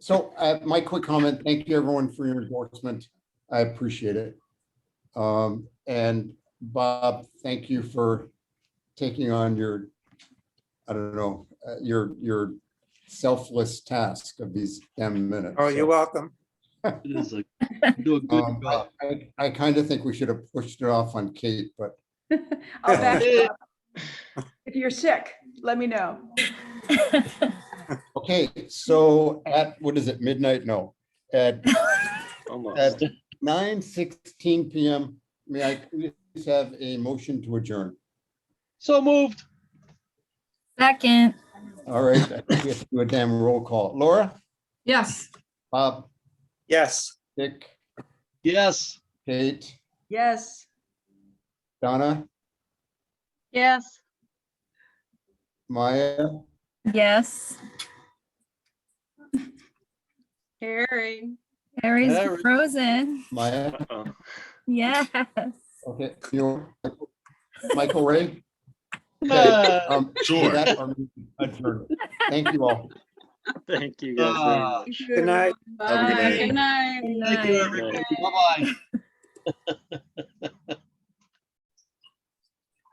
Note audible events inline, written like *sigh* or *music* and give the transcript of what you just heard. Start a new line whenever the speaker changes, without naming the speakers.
So uh, my quick comment, thank you everyone for your endorsement. I appreciate it. Um, And Bob, thank you for taking on your, I don't know, uh, your, your selfless task of these damn minutes.
Oh, you're welcome.
It is like, you do a good
Um,
job.
I, I kind of think we should have pushed it off on Kate, but
I'll back you up. If you're sick, let me know.
okay, so at, what is it, midnight? No. At
Almost.
at nine sixteen PM, may I please have a motion to adjourn?
So moved.
Second,
All right, I think we have to do a damn roll call. Laura,
Yes.
Bob,
Yes.
Dick,
Yes.
Kate,
Yes.
Donna,
Yes.
Maya,
yes.
Harry.
Harry's
Harry.
frozen.
Maya,
Yes.
okay, you, Michael Ray.
Ah,
Um, with
Sure.
that, our meeting adjourned. Thank you all.
*laughs* Thank you guys. very much.
ah.
Good night.
Have a good
Bye.
night.
Good night.
Thank you, everybody. Bye-bye.